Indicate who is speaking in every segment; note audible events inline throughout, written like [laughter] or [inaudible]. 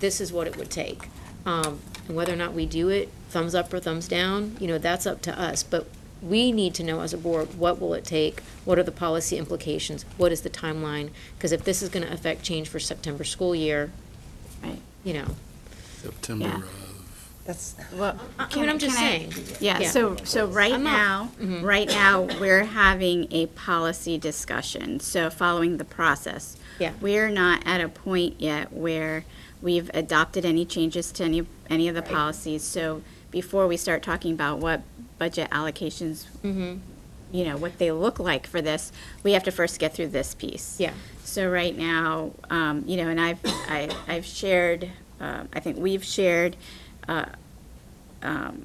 Speaker 1: this is what it would take. Um, and whether or not we do it, thumbs up or thumbs down, you know, that's up to us. But we need to know as a board, what will it take? What are the policy implications? What is the timeline? Because if this is gonna affect change for September school year,
Speaker 2: Right.
Speaker 1: you know,
Speaker 3: September uh,
Speaker 2: Yeah.
Speaker 3: of,
Speaker 4: That's,
Speaker 2: Well,
Speaker 1: I- I
Speaker 2: Uh, can-
Speaker 1: mean, I'm just
Speaker 2: can I-
Speaker 1: saying.
Speaker 2: Yeah, so, so right
Speaker 1: I'm not- Mm-hmm.
Speaker 2: now, right now, we're having a policy discussion, so following the process.
Speaker 1: Yeah.
Speaker 2: We're not at a point yet where we've adopted any changes to any, any of the policies. So before we start talking about what budget allocations,
Speaker 1: Mm-hmm.
Speaker 2: you know, what they look like for this, we have to first get through this piece.
Speaker 1: Yeah.
Speaker 2: So right now, um, you know, and I've, I, I've shared, uh, I think we've shared, uh, um,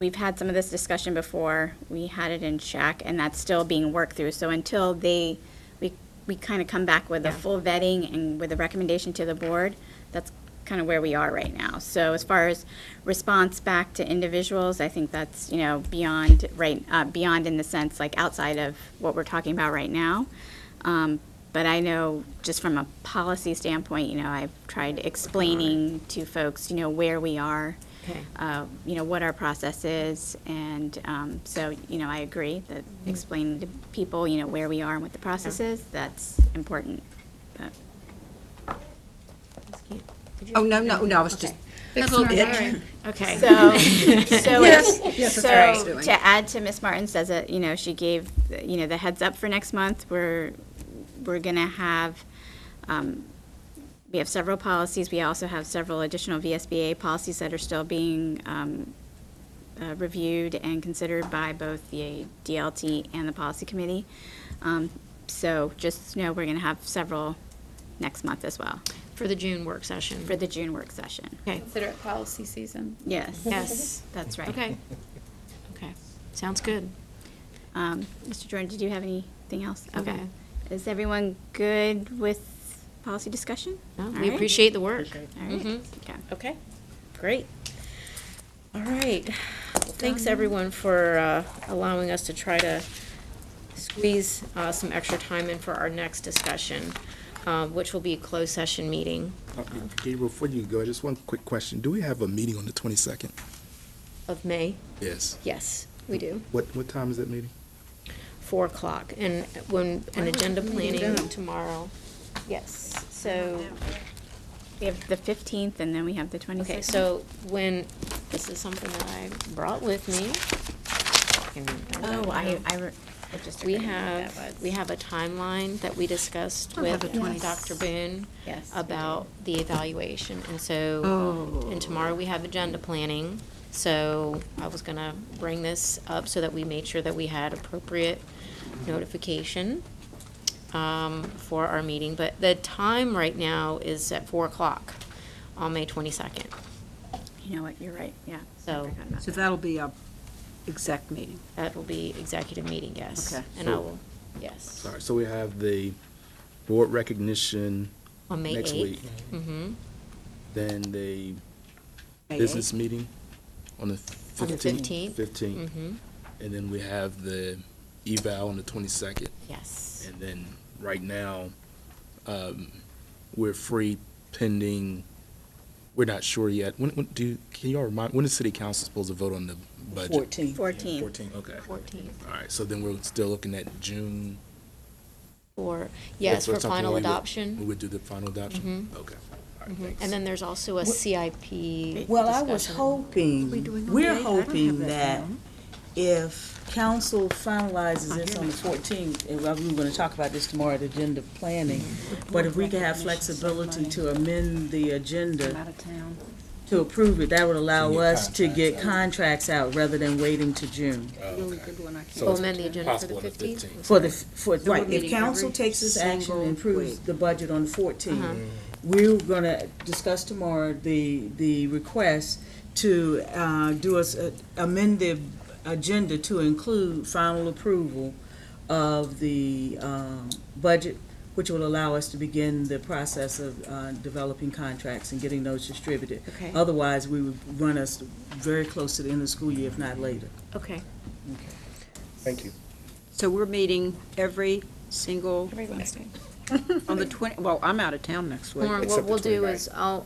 Speaker 2: we've had some of this discussion before. We had it in check, and that's still being worked through. So until they, we, we kind of come back with a full vetting and with a recommendation to the board, that's kind of where we are right now. So as far as response back to individuals, I think that's, you know, beyond, right, uh, beyond in the sense, like outside of what we're talking about right now. Um, but I know, just from a policy standpoint, you know, I've tried explaining to folks, you know, where we are
Speaker 1: Okay.
Speaker 2: uh, you know, what our process is, and um, so, you know, I agree that explaining to people, you know, where we are and what the process is, that's important. But
Speaker 4: oh, no, no, no, I was just.
Speaker 1: That's all right. Okay.
Speaker 2: So, so,
Speaker 4: Yes, yes, that's what I was
Speaker 2: so
Speaker 4: doing.
Speaker 2: to add to Miss Martin says that, you know, she gave, you know, the heads up for next month, we're, we're gonna have, um, we have several policies, we also have several additional VSBA policies that are still being, um, uh, reviewed and considered by both the DLT and the policy committee. Um, so just know we're gonna have several next month as well,
Speaker 1: For the June work session.
Speaker 2: for the June work session.
Speaker 1: Okay,
Speaker 5: Consider it policy season.
Speaker 2: Yes.
Speaker 1: Yes.
Speaker 2: That's right. [laughs]
Speaker 1: okay. Okay, sounds good.
Speaker 2: Um, Mr. Jordan, did you have anything else? Okay.
Speaker 1: No.
Speaker 2: Is everyone good with policy discussion?
Speaker 1: No,
Speaker 2: All
Speaker 1: We
Speaker 2: right.
Speaker 1: appreciate the work.
Speaker 2: All right.
Speaker 1: Mhm.
Speaker 2: Okay.
Speaker 1: Okay, great. All right. Well, Thanks, everyone, for uh, allowing us to try to squeeze uh, some extra time in for our next discussion, uh, which will be a closed session meeting
Speaker 3: Uh, Gabriel, before you go, just one quick question. Do we have a meeting on the twenty-second?
Speaker 1: of May.
Speaker 3: Yes.
Speaker 1: Yes, we do.
Speaker 3: What, what time is that meeting?
Speaker 1: 4 o'clock. And when, an agenda planning tomorrow. Yes, so,
Speaker 2: We have the 15th and then we have the 26th.
Speaker 1: okay, so when, this is something that I brought with me.
Speaker 2: Oh, I, I re- I just.
Speaker 1: We
Speaker 2: forgot what that
Speaker 1: have,
Speaker 2: was.
Speaker 1: we have a timeline that we discussed
Speaker 4: I'll have
Speaker 1: with
Speaker 4: it twenty-
Speaker 1: Dr. Boone
Speaker 2: Yes.
Speaker 1: about the evaluation, and so,
Speaker 4: Oh.
Speaker 1: and tomorrow we have agenda planning, so I was gonna bring this up so that we made sure that we had appropriate notification um, for our meeting, but the time right now is at four o'clock on May twenty-second.
Speaker 2: You know what, you're right, yeah. I
Speaker 1: So-
Speaker 2: forgot about
Speaker 4: So
Speaker 2: that.
Speaker 4: that'll be a exec meeting.
Speaker 1: That will be executive meeting, yes.
Speaker 4: Okay.
Speaker 1: And I
Speaker 3: So-
Speaker 1: will, yes,
Speaker 3: Sorry, so we have the board recognition
Speaker 1: on May
Speaker 3: next week,
Speaker 1: eighth. Mm-hmm,
Speaker 3: then the
Speaker 4: May
Speaker 3: business meeting on the
Speaker 1: On the 15th.
Speaker 3: fifteenth. Fifteenth,
Speaker 1: mm-hmm,
Speaker 3: and then we have the eval on the twenty-second.
Speaker 1: yes.
Speaker 3: And then, right now, um, we're free pending, we're not sure yet. When, when, do, can y'all remind, when is city council supposed to vote on the budget?
Speaker 4: 14th.
Speaker 2: 14th.
Speaker 3: Fourteen, okay.
Speaker 1: Fourteenth.
Speaker 3: All right, so then we're still looking at June?
Speaker 1: Or, yes,
Speaker 3: That's what
Speaker 1: for
Speaker 3: something we
Speaker 1: final
Speaker 3: would- We
Speaker 1: adoption.
Speaker 3: would do the final adoption? Okay. All right,
Speaker 1: Mhm.
Speaker 3: thanks.
Speaker 1: And then there's also a CIP.
Speaker 6: Well, I was
Speaker 1: discussion.
Speaker 6: hoping, we're hoping that if council finalizes this on the fourteenth, and we were gonna talk about this tomorrow at agenda planning, but if we could have flexibility to amend the agenda
Speaker 2: Out of town.
Speaker 6: to approve it, that would allow
Speaker 3: To get
Speaker 6: us to get
Speaker 3: contracts out.
Speaker 6: contracts out rather than waiting to June.
Speaker 3: So
Speaker 1: We'll
Speaker 3: it's
Speaker 1: amend the agenda for
Speaker 3: possible
Speaker 1: the
Speaker 3: on the
Speaker 1: fifteenth.
Speaker 3: 15th.
Speaker 6: For the, for, right, if
Speaker 4: meeting
Speaker 6: council
Speaker 4: every
Speaker 6: takes this action
Speaker 4: single
Speaker 6: and approves
Speaker 4: week.
Speaker 6: the budget on the
Speaker 1: Uh-huh.
Speaker 6: fourteenth, we're gonna discuss tomorrow the, the request to, uh, do us, uh, amend the agenda to include final approval of the, um, budget, which will allow us to begin the process of, uh, developing contracts and getting those distributed.
Speaker 1: Okay,
Speaker 6: Otherwise, we would run us very close to the end of the school year, if not later.
Speaker 1: okay.
Speaker 3: Thank you.
Speaker 4: So we're meeting every single [laughs]
Speaker 5: Every Wednesday.
Speaker 7: On the 20, well, I'm out of town next week.
Speaker 4: Lauren,
Speaker 1: Except
Speaker 4: what
Speaker 1: the
Speaker 4: we'll do
Speaker 1: 29th.
Speaker 4: is, I'll,